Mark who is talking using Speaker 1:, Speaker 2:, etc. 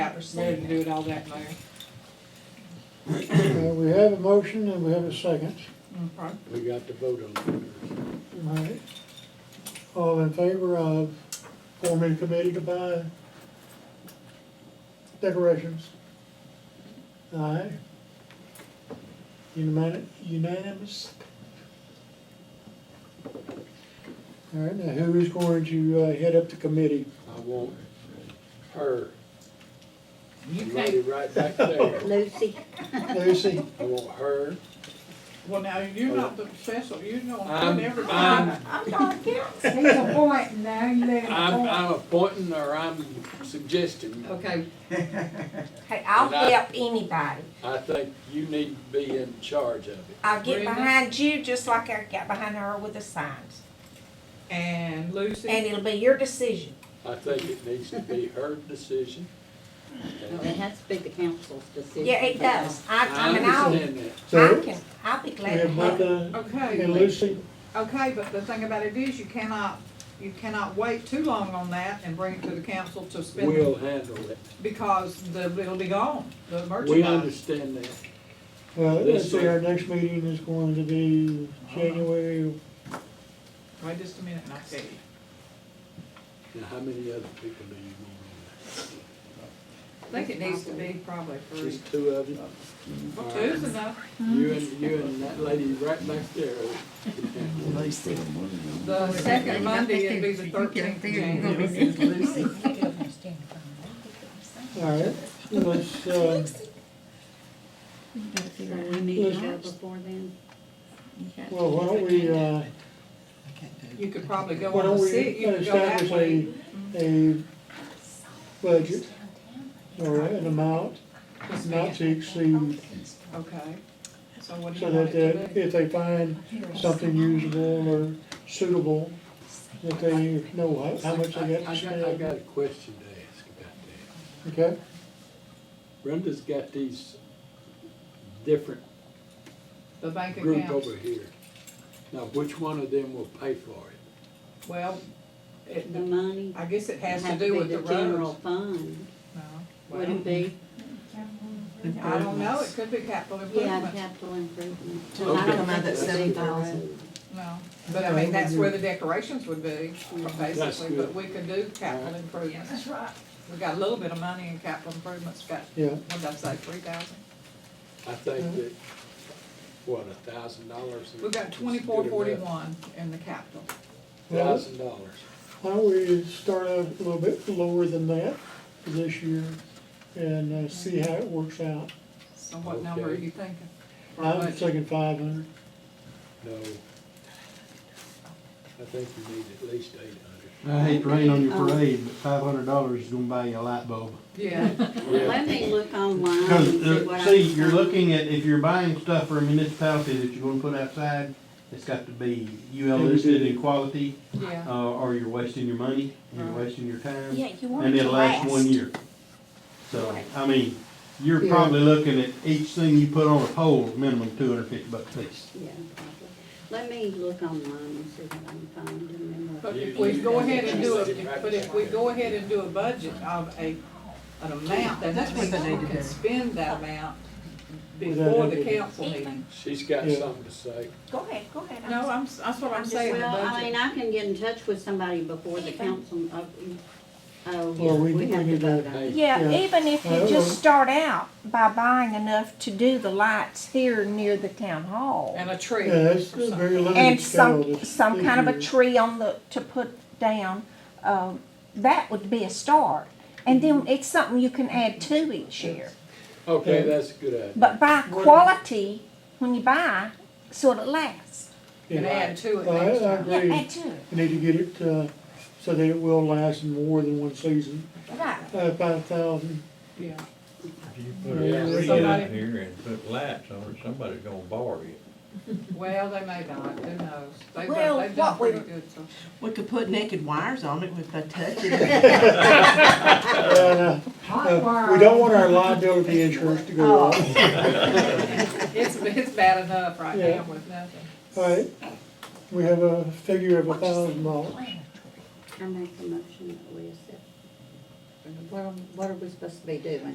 Speaker 1: five percent.
Speaker 2: Wanted to do it all that way.
Speaker 3: Uh, We have a motion and we have a second.
Speaker 2: Okay.
Speaker 4: We got to vote on
Speaker 3: All right. All in favor of forming a committee to buy decorations? Aye. Unimani- Unanimous? All right, now who is going to uh, head up the committee?
Speaker 4: it. I want her.
Speaker 2: You
Speaker 4: You
Speaker 2: can't,
Speaker 4: wrote it right back there.
Speaker 1: Lucy,
Speaker 3: Lucy?
Speaker 4: I want her.
Speaker 2: well, now, you're not the Cecil, you're gonna
Speaker 4: I'm,
Speaker 2: put everybody.
Speaker 4: I'm,
Speaker 5: He's a point now, you let him
Speaker 4: I'm,
Speaker 5: point.
Speaker 4: I'm appointing or I'm suggesting.
Speaker 2: Okay,
Speaker 1: hey, I'll
Speaker 4: And I-
Speaker 1: help anybody.
Speaker 4: I think you need to be in charge of it.
Speaker 1: I'll get
Speaker 2: Brenda?
Speaker 1: behind you just like I got behind her with the signs.
Speaker 2: and
Speaker 1: And
Speaker 2: Lucy,
Speaker 1: it'll be your decision.
Speaker 4: I think it needs to be her decision.
Speaker 6: Well, it has to be the council's decision.
Speaker 1: Yeah, it does. I, I mean, I'll,
Speaker 4: understand that.
Speaker 3: So,
Speaker 1: I can, I'll be
Speaker 3: we
Speaker 1: glad to
Speaker 3: have
Speaker 1: help.
Speaker 3: Brenda and
Speaker 2: okay,
Speaker 3: Lucy.
Speaker 2: okay, but the thing about it is, you cannot, you cannot wait too long on that and bring it to the council to spend.
Speaker 4: We'll handle it.
Speaker 2: Because the, it'll be gone, the
Speaker 4: We
Speaker 2: merchandise.
Speaker 4: understand that.
Speaker 3: Well, let's
Speaker 4: Lucy.
Speaker 3: see, our next meeting is going to be January,
Speaker 2: Wait just a minute and I'll tell you.
Speaker 4: Now, how many other people do you want
Speaker 2: I think it needs to be probably
Speaker 4: on there?
Speaker 2: three.
Speaker 4: Just two of you?
Speaker 2: Well, two's enough.
Speaker 4: You and, you and that lady right back there.
Speaker 2: The second Monday, it'd be the thirteenth of January.
Speaker 3: all right? Let's, uh,
Speaker 6: We need to go before then.
Speaker 3: well, why don't we, uh,
Speaker 2: You could probably go
Speaker 3: Why
Speaker 2: on
Speaker 3: don't
Speaker 2: the
Speaker 3: we
Speaker 2: sixth, you could go that
Speaker 3: establish
Speaker 2: way.
Speaker 3: a, a budget or an amount
Speaker 2: Just
Speaker 3: not
Speaker 2: me.
Speaker 3: to exceed,
Speaker 2: Okay, so what do
Speaker 3: so
Speaker 2: you want
Speaker 3: that
Speaker 2: it
Speaker 3: that
Speaker 2: to be?
Speaker 3: if they find something usable or suitable, that they know how, how much
Speaker 4: I,
Speaker 3: they got
Speaker 4: I
Speaker 3: to
Speaker 4: got, I
Speaker 3: spend.
Speaker 4: got a question to ask about that.
Speaker 3: Okay,
Speaker 4: Brenda's got these different
Speaker 2: The bank
Speaker 4: group over
Speaker 2: accounts,
Speaker 4: here. Now, which one of them will pay for it?
Speaker 2: well, it,
Speaker 6: The money
Speaker 2: I guess it has to
Speaker 6: has to
Speaker 2: do
Speaker 6: be
Speaker 2: with the
Speaker 6: the general
Speaker 2: roads.
Speaker 6: fund,
Speaker 2: No,
Speaker 6: would it
Speaker 2: well,
Speaker 6: be?
Speaker 2: I don't know, it could be capital
Speaker 6: Yeah,
Speaker 2: improvement,
Speaker 6: capital improvement.
Speaker 4: It'll
Speaker 6: I don't
Speaker 4: come out
Speaker 6: think
Speaker 4: that
Speaker 6: it would be
Speaker 5: 7,000.
Speaker 6: the road.
Speaker 2: no, but I mean, that's where the decorations would be, basically, but
Speaker 4: good.
Speaker 2: we could do capital improvements. That's right. We got a little bit of money in capital improvements, got,
Speaker 3: yeah,
Speaker 2: what did I say, three thousand?
Speaker 4: I think that, what, a thousand dollars?
Speaker 2: We got twenty-four forty-one in the capital.
Speaker 4: Thousand dollars.
Speaker 3: why don't we start out a little bit lower than that for this year and uh, see how it works out.
Speaker 2: So what number are
Speaker 4: Okay.
Speaker 2: you thinking? for a
Speaker 3: I'm
Speaker 2: budget?
Speaker 3: thinking five hundred,
Speaker 4: No. I think you need at least eight
Speaker 7: I hate to rain on your parade, but five hundred dollars is gonna buy you a light bulb.
Speaker 2: Yeah.
Speaker 4: hundred.
Speaker 6: Let me look online and
Speaker 7: Cause,
Speaker 6: see what I
Speaker 7: uh,
Speaker 6: can.
Speaker 7: see, you're
Speaker 6: find.
Speaker 7: looking at, if you're buying stuff for a municipality that you're gonna put outside, it's got to be UL listed in quality,
Speaker 2: Yeah,
Speaker 7: uh, or you're wasting your money, you're
Speaker 2: Right.
Speaker 7: wasting your time,
Speaker 1: Yeah, you want it
Speaker 7: and
Speaker 1: to
Speaker 7: it'll last
Speaker 1: last.
Speaker 7: one year. So,
Speaker 1: Right.
Speaker 7: I mean, you're
Speaker 3: Yeah.
Speaker 7: probably looking at each thing you put on a pole, minimum two hundred fifty bucks a piece.
Speaker 6: Yeah, probably. Let me look online and see what I can find and then. we'll-
Speaker 2: but if we go ahead and do a, but if we go ahead and do a budget of a, an amount, then that means we can spend that amount before the council meeting.
Speaker 4: She's got
Speaker 3: Yeah.
Speaker 4: something to say.
Speaker 1: Go ahead, go ahead. I'm
Speaker 2: No,
Speaker 1: sorry.
Speaker 2: I'm, s- that's what I'm saying, the
Speaker 6: Well, I mean,
Speaker 2: budget.
Speaker 6: I can get in touch with somebody before the council, uh, oh, yeah,
Speaker 3: Well, we-
Speaker 6: we
Speaker 3: we
Speaker 6: have to
Speaker 3: need to-
Speaker 6: vote on it.
Speaker 4: Hey,
Speaker 1: Yeah,
Speaker 3: Yeah.
Speaker 1: even if you
Speaker 3: Well,
Speaker 1: just
Speaker 3: well-
Speaker 1: start out by buying enough to do the lights here near the town hall.
Speaker 2: And a tree.
Speaker 3: yeah, that's a very
Speaker 1: And
Speaker 3: limited scale.
Speaker 1: some,
Speaker 3: this-
Speaker 1: some
Speaker 3: this
Speaker 1: kind of a
Speaker 3: year.
Speaker 1: tree on the, to put down, um, that would be a start. And then it's something you can add to each year.
Speaker 4: Okay, that's a good idea.
Speaker 1: But buy
Speaker 3: Well-
Speaker 1: quality when you buy, so it lasts.
Speaker 2: And
Speaker 3: Yeah.
Speaker 2: add to it
Speaker 3: Well, I-
Speaker 2: next
Speaker 3: I
Speaker 2: time.
Speaker 1: Yeah,
Speaker 3: Agreed.
Speaker 1: add to it,
Speaker 3: You need to get it, uh, so that it will last more than one season,
Speaker 1: right.
Speaker 3: uh, five thousand.
Speaker 2: Yeah,
Speaker 8: If you put
Speaker 4: Yeah.
Speaker 8: a tree
Speaker 2: Somebody-
Speaker 8: out here and put lights on it, somebody's gonna borrow it.
Speaker 2: well, they may not, who knows? They've,
Speaker 1: Well,
Speaker 2: done- they've done
Speaker 1: what we-
Speaker 2: pretty good, so.
Speaker 9: We could put naked wires on it if I touch it.
Speaker 5: Hot wire.
Speaker 3: Uh, We don't want our liability insurance to
Speaker 1: Oh.
Speaker 3: go up.
Speaker 2: It's, it's bad enough right
Speaker 3: Yeah.
Speaker 2: now with nothing.
Speaker 3: Alright, we have a figure of a thousand dollars.
Speaker 6: I make the motion that we accept What, are- what are we supposed to be doing?